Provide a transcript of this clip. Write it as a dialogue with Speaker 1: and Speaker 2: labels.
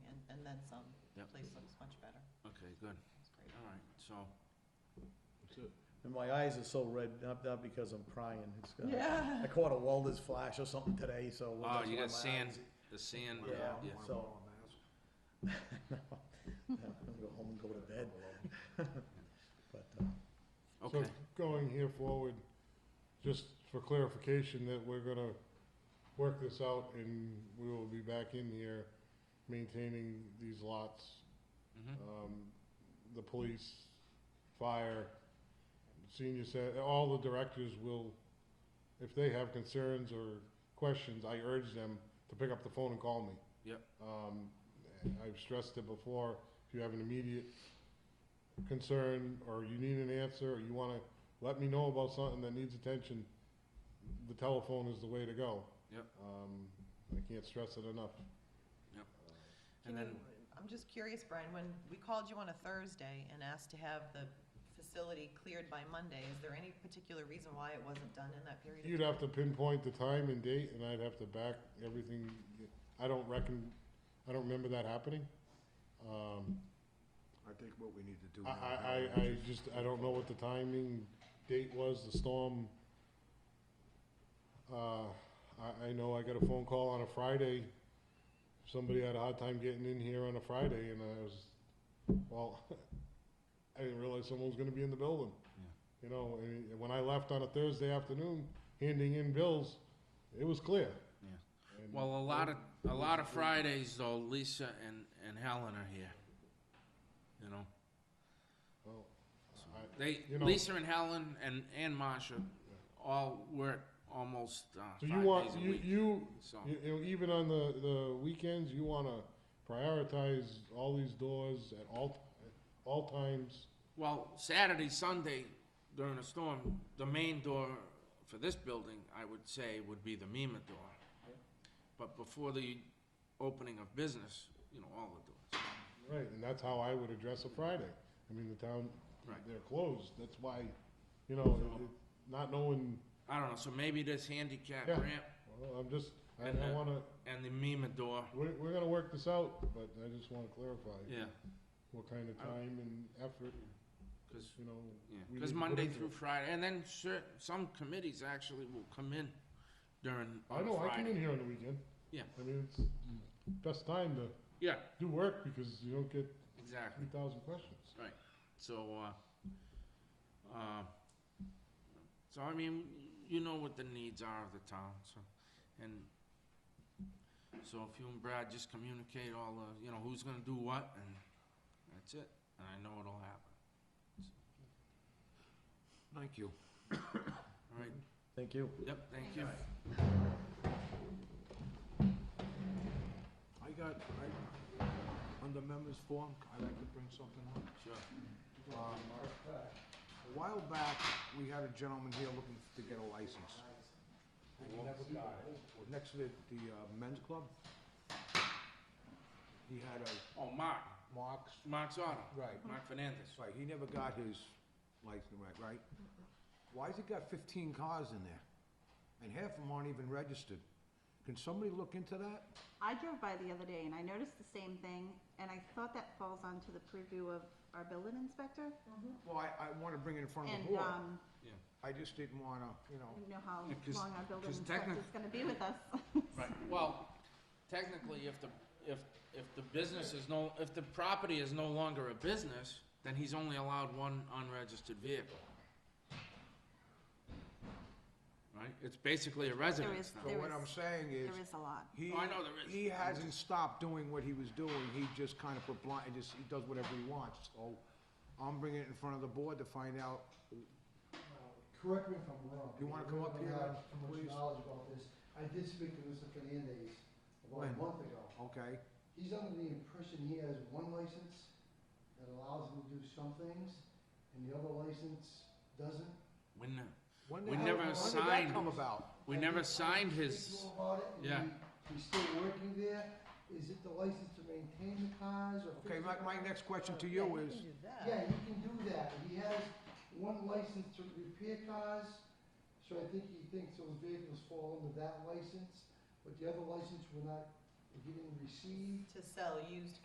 Speaker 1: so.
Speaker 2: And my eyes are so red, not, not because I'm crying, it's, uh,
Speaker 3: Yeah.
Speaker 2: I caught a welder's flash or something today, so.
Speaker 1: Oh,
Speaker 2: that's
Speaker 1: you
Speaker 2: why my
Speaker 1: got sand,
Speaker 2: eyes-
Speaker 1: the sand,
Speaker 2: Yeah,
Speaker 1: yeah.
Speaker 2: so. No, no, I'm gonna go home and go to bed, but, uh,
Speaker 1: Okay,
Speaker 4: Going here forward, just for clarification, that we're gonna work this out and we will be back in here maintaining these lots,
Speaker 1: mhm,
Speaker 4: um, the police, fire, senior cen- all the directors will, if they have concerns or questions, I urge them to pick up the phone and call me.
Speaker 1: Yep.
Speaker 4: Um, and I've stressed it before, if you have an immediate concern, or you need an answer, or you wanna let me know about something that needs attention, the telephone is the way to go.
Speaker 1: Yep.
Speaker 4: Um, I can't stress it enough.
Speaker 1: and then,
Speaker 3: I'm just curious, Brian, when we called you on a Thursday and asked to have the facility cleared by Monday, is there any particular reason why it wasn't done in that period? of
Speaker 4: You'd
Speaker 3: time?
Speaker 4: have to pinpoint the time and date, and I'd have to back everything, I don't reckon, I don't remember that happening. Um,
Speaker 5: I think what we need to do.
Speaker 4: I,
Speaker 5: now
Speaker 4: I, I, I just, I don't know what the timing, date was, the storm. Uh, I, I know I got a phone call on a Friday, somebody had a hard time getting in here on a Friday, and I was, well, I didn't realize someone was gonna be in the building.
Speaker 1: Yeah.
Speaker 4: You know, and when I left on a Thursday afternoon, handing in bills, it was clear.
Speaker 1: Yeah.
Speaker 4: And-
Speaker 1: well, a lot of, a lot of Fridays though, Lisa and, and Helen are here. You know,
Speaker 4: Well, I-
Speaker 1: they,
Speaker 4: You know-
Speaker 1: Lisa and Helen and, and Marsha all work almost, uh,
Speaker 4: So
Speaker 1: five
Speaker 4: you want,
Speaker 1: days a
Speaker 4: you,
Speaker 1: week,
Speaker 4: you,
Speaker 1: so.
Speaker 4: You, you know, even on the, the weekends, you wanna prioritize all these doors at all, at all times.
Speaker 1: Well, Saturday, Sunday, during a storm, the main door for this building, I would say, would be the Mima door. But before the opening of business, you know, all the doors.
Speaker 4: Right, and that's how I would address a Friday. I mean, the town,
Speaker 1: Right.
Speaker 4: they're closed, that's why, you know, it- it- not knowing,
Speaker 1: I don't know, so maybe this handicap
Speaker 4: Yeah.
Speaker 1: ramp
Speaker 4: well, I'm just, I,
Speaker 1: And,
Speaker 4: I
Speaker 1: uh,
Speaker 4: wanna,
Speaker 1: and the Mima door,
Speaker 4: we're, we're gonna work this out, but I just wanna clarify.
Speaker 1: yeah,
Speaker 4: What kind of
Speaker 1: I don't-
Speaker 4: time and effort,
Speaker 1: because,
Speaker 4: you know, We need to put
Speaker 1: Monday
Speaker 4: into
Speaker 1: through
Speaker 4: it.
Speaker 1: Friday, and then cer- some committees actually will come in during,
Speaker 4: I
Speaker 1: on a
Speaker 4: know, I come in
Speaker 1: Friday.
Speaker 4: here on the weekend.
Speaker 1: Yeah.
Speaker 4: I mean, it's best time to
Speaker 1: Yeah,
Speaker 4: do work because you don't get
Speaker 1: exactly,
Speaker 4: three thousand questions.
Speaker 1: so, uh, uh, so I mean, you know what the needs are of the town, so, and, so if you and Brad just communicate all the, you know, who's gonna do what, and that's it, and I know it'll happen,
Speaker 5: Thank you.
Speaker 1: all right?
Speaker 2: thank you.
Speaker 1: Yep, thank you.
Speaker 5: I got, I, under members forum, I'd like to bring something up.
Speaker 1: Sure.
Speaker 5: Um, A while back, we had a gentleman here looking to get a license. Next to the, the uh, men's club. He had a
Speaker 1: Oh, Mark,
Speaker 5: Mark's,
Speaker 1: Mark's auto,
Speaker 5: right,
Speaker 1: Mark Fernandez.
Speaker 5: that's right, he never got his license, right, right? Why's he got fifteen cars in there? And half of them aren't even registered. Can somebody look into that?
Speaker 6: I drove by the other day and I noticed the same thing, and I thought that falls onto the purview of our building inspector.
Speaker 5: Well, I, I wanna bring it in front of the
Speaker 6: And,
Speaker 5: board.
Speaker 6: um,
Speaker 5: I just didn't wanna, you know.
Speaker 6: I don't know how
Speaker 1: Yeah, 'cause-
Speaker 6: long our building
Speaker 1: 'cause
Speaker 6: inspector's
Speaker 1: technic-
Speaker 6: gonna be with us.
Speaker 1: Right, well, technically, if the, if, if the business is no, if the property is no longer a business, then he's only allowed one unregistered vehicle. Right, it's basically a residence
Speaker 6: is-
Speaker 1: now.
Speaker 5: But
Speaker 6: There
Speaker 5: what I'm
Speaker 6: is-
Speaker 5: saying is,
Speaker 6: There is a lot.
Speaker 5: he,
Speaker 1: Oh, I know there is.
Speaker 5: he hasn't stopped doing what he was doing, he just kind of put blind, just, he does whatever he wants, so I'm bringing it in front of the board to find out,
Speaker 7: Uh, Correct me if I'm wrong.
Speaker 5: You wanna come up here,
Speaker 7: I don't have too
Speaker 5: please?
Speaker 7: much knowledge about this. I did speak to Mr. Fernandez about
Speaker 5: When?
Speaker 7: a month ago.
Speaker 5: okay?
Speaker 7: He's under the impression he has one license that allows him to do some things, and the other license doesn't.
Speaker 1: When, the-
Speaker 5: When
Speaker 1: We
Speaker 5: the hell-
Speaker 1: never
Speaker 5: When did
Speaker 1: signed-
Speaker 5: that come about?
Speaker 1: we
Speaker 7: And
Speaker 1: never
Speaker 7: he- I
Speaker 1: signed
Speaker 7: speak to
Speaker 1: his,
Speaker 7: him about it, and
Speaker 1: yeah.
Speaker 7: he- He's still working there. Is it the license to maintain the cars or?
Speaker 5: Okay,
Speaker 7: fix
Speaker 5: my,
Speaker 7: the
Speaker 5: my
Speaker 7: cars?
Speaker 5: next question to
Speaker 3: Yeah,
Speaker 5: you
Speaker 3: you
Speaker 5: is,
Speaker 3: can do that.
Speaker 7: Yeah, he can do that. He has one license to repair cars, so I think he thinks those vehicles fall under that license, but the other license we're not, he didn't receive.
Speaker 3: To sell used